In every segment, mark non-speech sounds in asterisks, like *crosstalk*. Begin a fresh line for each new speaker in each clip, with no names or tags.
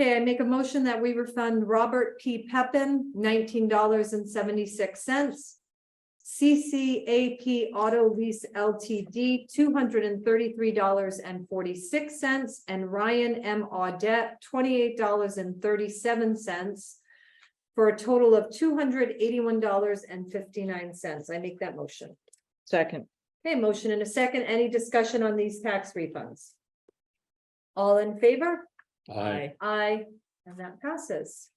Okay, I make a motion that we refund Robert P. Peppin nineteen dollars and seventy-six cents. CCAP Auto Lease LTD, two hundred and thirty-three dollars and forty-six cents, and Ryan M. Audette, twenty-eight dollars and thirty-seven cents. For a total of two hundred eighty-one dollars and fifty-nine cents. I make that motion.
second,
Okay, motion in a second. Any discussion on these tax refunds? All in favor?
aye,
Aye, and that passes.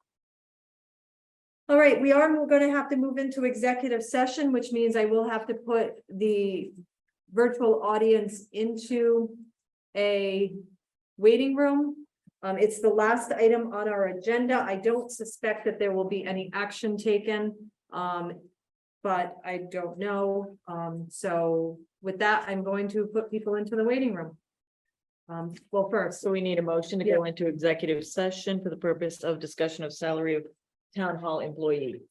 All right, we are gonna have to move into executive session, which means I will have to put the virtual audience into a waiting room. Um, it's the last item on our agenda. I don't suspect that there will be any action taken. Um, but I don't know. Um, so with that, I'm going to put people into the waiting room. Um, well, first,
so we need a motion to go into executive session for the purpose of discussion of salary of town hall employee.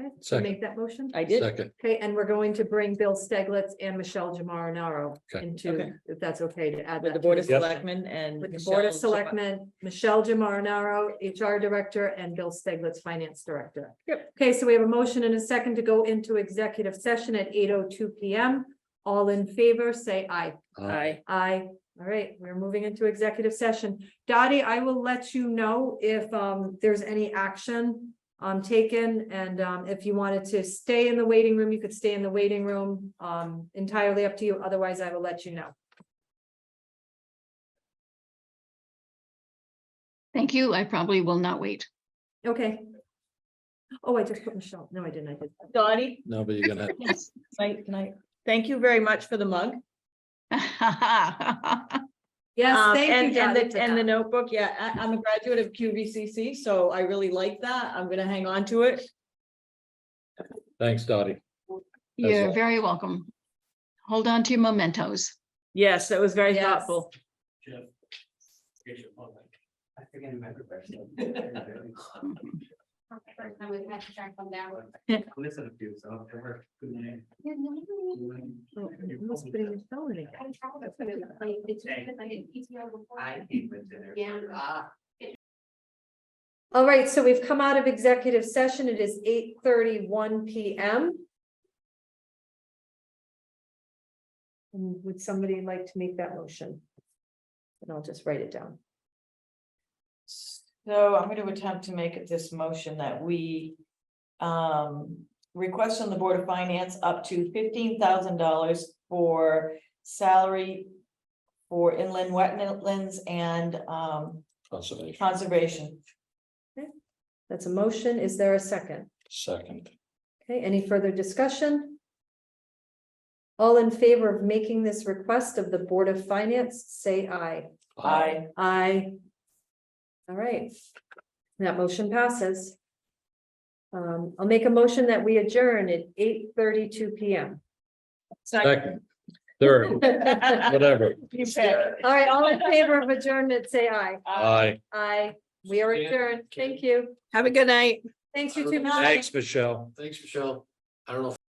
Okay, make that motion.
I did,
Second,
Okay, and we're going to bring Bill Steglitz and Michelle Jamarinaro
Okay.
into,
Okay.
if that's okay to add
with
that.
the Board of
to the-
Selectmen and.
With the Board of
Michelle Chapa-
Selectmen, Michelle Jamarinaro, HR Director, and Bill Steglitz, Finance Director. Yep. Okay, so we have a motion and a second to go into executive session at eight oh two P M. All in favor, say aye.
aye,
Aye.
Aye. All right, we're moving into executive session. Dottie, I will let you know if um there's any action um taken and um if you wanted to stay in the waiting room, you could stay in the waiting room. Um entirely up to you. Otherwise, I will let you know.
Thank you. I probably will not wait.
Okay. Oh, I just put Michelle. No, I didn't. I did.
Dottie,
no, but you're gonna,
Yes.
tonight, tonight, thank you very much for the mug.
Yes,
Um,
thank
and-
you.
And
Dottie, for
the, and the
that.
notebook, yeah, I, I'm a graduate of QVCC, so I really like that. I'm gonna hang on to it.
thanks, Dottie.
*laughs* You're
all.
very welcome. Hold on to your mementos.
Yes, that was very
Yes.
thoughtful.
Jeff. Here's your phone. I forget my *laughs* question.
First time we've had to track them down.
Listen to you, so it worked. Good night.
Oh, I must put in your phone again.
I came with dinner. Ah,
Yeah.
All right, so we've come out of executive session. It is eight thirty-one PM. And Mm, Would somebody like to make that motion? And I'll just write it down.
So I'm gonna attempt to make this motion that we. Um, request from the Board of Finance up to fifteen thousand dollars for salary. For inland wetlands and um
Conservation,
conservation.
That's a motion. Is there a second?
second,
Okay, any further discussion? All in favor of making this request of the Board of Finance, say aye.
I,
Aye. All right. That motion passes. Um, I'll make a motion that we adjourn at eight thirty-two PM.
*laughs* second, third,
*laughs*
whatever,
You bet.
All right, all in favor of adjournment, say aye.
aye.
Aye, we are adjourned. Thank you.
Have a good night.
Thanks you too much.
Thanks, Michelle.
Thanks, Michelle. I don't know if